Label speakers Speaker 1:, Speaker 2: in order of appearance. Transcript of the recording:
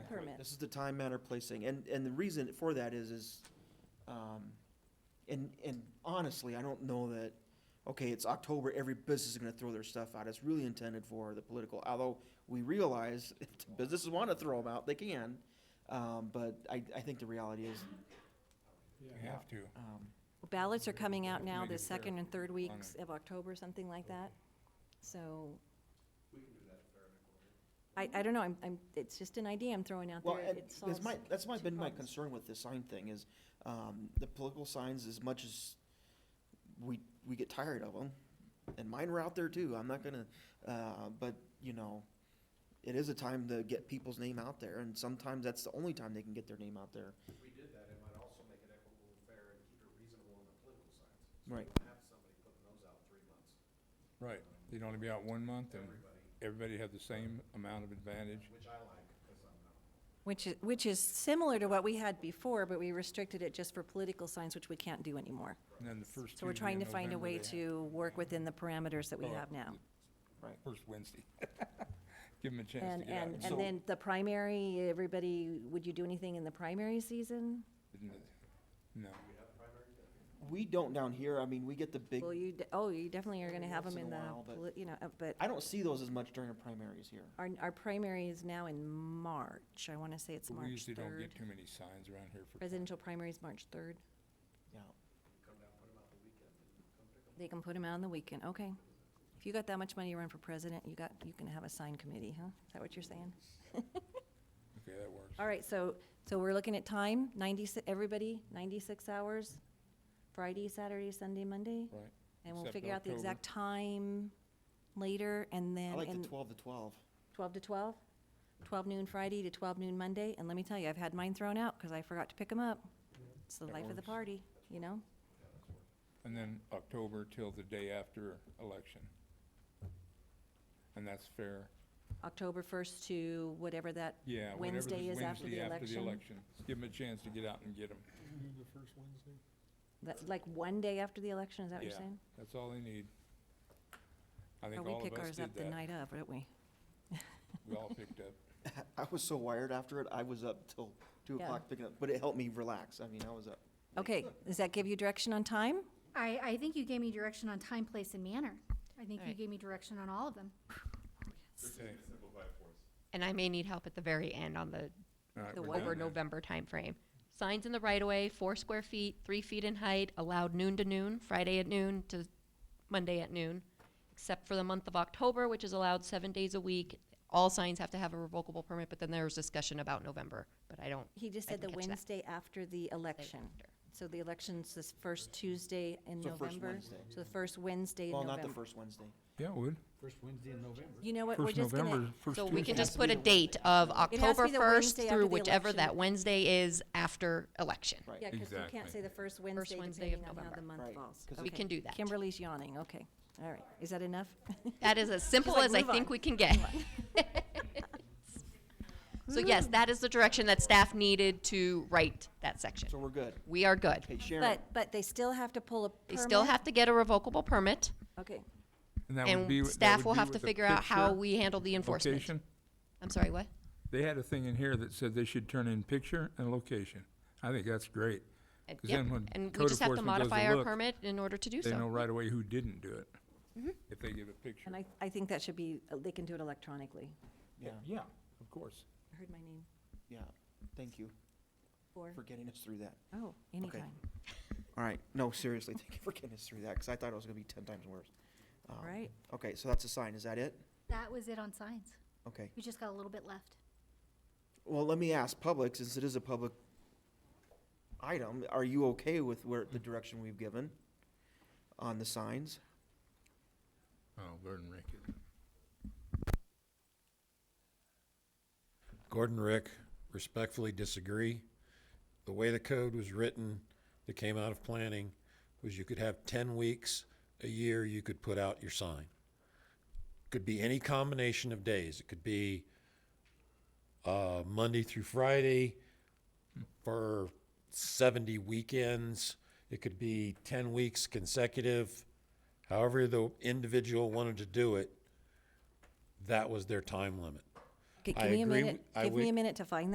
Speaker 1: permit.
Speaker 2: This is the time, manner, placing, and, and the reason for that is, is, um, and, and honestly, I don't know that, okay, it's October, every business is gonna throw their stuff out, it's really intended for the political, although we realize if the businesses wanna throw them out, they can, um, but I, I think the reality is,
Speaker 3: We have to.
Speaker 2: um,
Speaker 1: Ballots are coming out
Speaker 3: Have to
Speaker 1: now,
Speaker 3: make
Speaker 1: the
Speaker 3: it fair
Speaker 1: second and third weeks
Speaker 3: it.
Speaker 1: of October, something like that. So. I, I don't know, I'm, I'm, it's just an idea I'm throwing out there.
Speaker 2: Well, and
Speaker 1: It solves
Speaker 2: that's my, that's my,
Speaker 1: two
Speaker 2: been my
Speaker 1: problems.
Speaker 2: concern with the sign thing is, um, the political signs, as much as we, we get tired of them, and mine were out there too, I'm not gonna, uh, but, you know, it is a time to get people's name out there, and sometimes that's the only time they can get their name out there.
Speaker 4: If we did that, it might also make it equitable and fair and keep it reasonable on the political signs.
Speaker 2: Right.
Speaker 4: So you don't have somebody putting those out three months,
Speaker 3: Right, they'd only be out one month and
Speaker 4: everybody,
Speaker 3: everybody had the same amount of advantage.
Speaker 4: which I like, because I'm not.
Speaker 1: Which is, which is similar to what we had before, but we restricted it just for political signs, which we can't do anymore.
Speaker 3: And then the first
Speaker 1: So we're
Speaker 3: Tuesday in
Speaker 1: trying to find a
Speaker 3: November,
Speaker 1: way
Speaker 3: they-
Speaker 1: to work within the parameters that we
Speaker 3: Well,
Speaker 1: have now.
Speaker 3: First Wednesday. Give them a chance
Speaker 1: And,
Speaker 3: to get out.
Speaker 1: and, and then the primary, everybody, would you do anything in the primary season?
Speaker 3: then. No,
Speaker 2: We don't down here, I mean, we get the big,
Speaker 1: Well, you, de- oh, you definitely are gonna have
Speaker 2: Once
Speaker 1: them
Speaker 2: in
Speaker 1: in
Speaker 2: a
Speaker 1: the,
Speaker 2: while, but-
Speaker 1: poli- you know, uh, but
Speaker 2: I don't see those as much during the primaries here.
Speaker 1: our, our primary is now in March. I wanna say it's
Speaker 3: but we
Speaker 1: March
Speaker 3: usually don't
Speaker 1: third.
Speaker 3: get too many signs around here for.
Speaker 1: Presidential primary is March third.
Speaker 2: Yeah,
Speaker 1: They can put them out on the weekend, okay. If you got that much money to run for president, you got, you can have a sign committee, huh? Is that what you're saying?
Speaker 3: Okay, that works.
Speaker 1: All right, so, so we're looking at time, ninety-six, everybody, ninety-six hours, Friday, Saturday, Sunday, Monday?
Speaker 3: Right.
Speaker 1: And we'll
Speaker 3: Except
Speaker 1: figure out the
Speaker 3: October.
Speaker 1: exact time later, and
Speaker 2: I
Speaker 1: then,
Speaker 2: like the
Speaker 1: and
Speaker 2: twelve to twelve.
Speaker 1: twelve to twelve? Twelve noon Friday to twelve noon Monday, and let me tell you, I've had mine thrown out, because I forgot to pick them up. It's the
Speaker 3: That
Speaker 1: life of the
Speaker 3: works.
Speaker 1: party, you know?
Speaker 3: And then October till the day after election. And that's fair.
Speaker 1: October first to whatever that,
Speaker 3: Yeah, whatever the
Speaker 1: Wednesday is after the
Speaker 3: Wednesday after the
Speaker 1: election.
Speaker 3: election. Give them a chance to get out and get them.
Speaker 1: that's like one day after the election, is that what you're
Speaker 3: Yeah.
Speaker 1: saying?
Speaker 3: That's all they need. I
Speaker 1: Or
Speaker 3: think
Speaker 1: we
Speaker 3: all
Speaker 1: pick
Speaker 3: of us
Speaker 1: ours up
Speaker 3: did
Speaker 1: the
Speaker 3: that.
Speaker 1: night of, don't we?
Speaker 3: We all picked up.
Speaker 2: I was so wired after it, I was up till two
Speaker 1: Yeah.
Speaker 2: o'clock picking up, but it helped me relax, I mean, I was up.
Speaker 1: Okay, does that give you direction on time?
Speaker 5: I, I think you gave me direction on time, place, and manner. I think you
Speaker 6: Alright.
Speaker 5: gave me direction on all of them.
Speaker 3: Okay.
Speaker 6: And I may need help at the very end on the
Speaker 3: All right,
Speaker 6: the
Speaker 3: we're
Speaker 6: over
Speaker 3: done then.
Speaker 6: November timeframe. Signs in the right of way, four square feet, three feet in height, allowed noon to noon, Friday at noon to Monday at noon, except for the month of October, which is allowed seven days a week. All signs have to have a revocable permit, but then there was discussion about November, but I don't.
Speaker 1: He just
Speaker 6: I
Speaker 1: said the
Speaker 6: didn't catch that.
Speaker 1: Wednesday after the election.
Speaker 6: after.
Speaker 1: So the election's this first Tuesday in
Speaker 2: So first
Speaker 1: November.
Speaker 2: Wednesday.
Speaker 1: So the first Wednesday in
Speaker 2: Well, not
Speaker 1: November.
Speaker 2: the first Wednesday.
Speaker 3: Yeah, it would.
Speaker 7: First Wednesday in November.
Speaker 1: You know what, we're
Speaker 3: First
Speaker 1: just gonna,
Speaker 3: November, first
Speaker 6: So we
Speaker 3: Tuesday.
Speaker 6: can just put a date of
Speaker 1: be the
Speaker 6: October first
Speaker 1: Wednesday after
Speaker 6: through
Speaker 1: the
Speaker 6: whichever
Speaker 1: election.
Speaker 6: that Wednesday is after election.
Speaker 2: Right.
Speaker 1: yeah, because you can't
Speaker 3: Exactly.
Speaker 1: say the first Wednesday
Speaker 6: Wednesday of
Speaker 1: depending on how the
Speaker 6: November.
Speaker 1: month
Speaker 2: Right,
Speaker 1: falls.
Speaker 2: 'cause
Speaker 6: We
Speaker 1: Okay.
Speaker 6: can do that.
Speaker 1: Kimberly's yawning, okay. All right, is that enough?
Speaker 6: That is as simple
Speaker 1: like,
Speaker 6: as I
Speaker 1: "Move
Speaker 6: think
Speaker 1: on."
Speaker 6: we can get. So yes, that is the direction that staff needed to write that section.
Speaker 2: So we're good.
Speaker 6: We are good.
Speaker 2: Hey, Sharon,
Speaker 1: But, but they still have to pull a
Speaker 6: They
Speaker 1: permit?
Speaker 6: still have to get a revocable permit,
Speaker 1: Okay,
Speaker 3: And that would be wi-
Speaker 6: and
Speaker 3: that
Speaker 6: staff
Speaker 3: would
Speaker 6: will
Speaker 3: be
Speaker 6: have to
Speaker 3: with the
Speaker 6: figure out how
Speaker 3: picture
Speaker 6: we handle the enforcement.
Speaker 3: location.
Speaker 6: I'm sorry, what?
Speaker 3: They had a thing in here that said they should turn in picture and location. I think that's great.
Speaker 6: And-
Speaker 3: 'Cause
Speaker 6: Yep,
Speaker 3: then when
Speaker 6: and we
Speaker 3: code
Speaker 6: just have to
Speaker 3: enforcement goes to
Speaker 6: modify our
Speaker 3: look,
Speaker 6: permit in order to do
Speaker 3: They know
Speaker 6: so. Mm-hmm.
Speaker 3: right away who didn't do it. If they give a picture.
Speaker 1: and I, I think that should be, uh, they can do it electronically.
Speaker 2: yeah,
Speaker 3: Yeah, of course.
Speaker 1: I heard my name.
Speaker 2: yeah, thank you
Speaker 1: Four,
Speaker 2: for getting us through that.
Speaker 1: oh, anytime,
Speaker 2: All right, no, seriously, thank you for getting us through that, because I thought it was gonna be ten times worse.
Speaker 1: all
Speaker 2: Um,
Speaker 1: right.
Speaker 2: Okay, so that's a sign, is that it?
Speaker 5: That was it on signs.
Speaker 2: Okay,
Speaker 5: We just got a little bit left.
Speaker 2: well, let me ask, public, since it is a public item, are you okay with where, the direction we've given on the signs?
Speaker 3: Oh, Gordon Ricketts.
Speaker 7: Gordon Rick, respectfully disagree. The way the code was written, that came out of planning, was you could have ten weeks, a year, you could put out your sign. Could be any combination of days. It could be uh, Monday through Friday for seventy weekends. It could be ten weeks consecutive. However the individual wanted to do it, that was their time limit.
Speaker 1: Okay,
Speaker 7: I
Speaker 1: Give me a
Speaker 7: agree
Speaker 1: minute,
Speaker 7: w- I
Speaker 1: give me
Speaker 7: would-
Speaker 1: a minute to find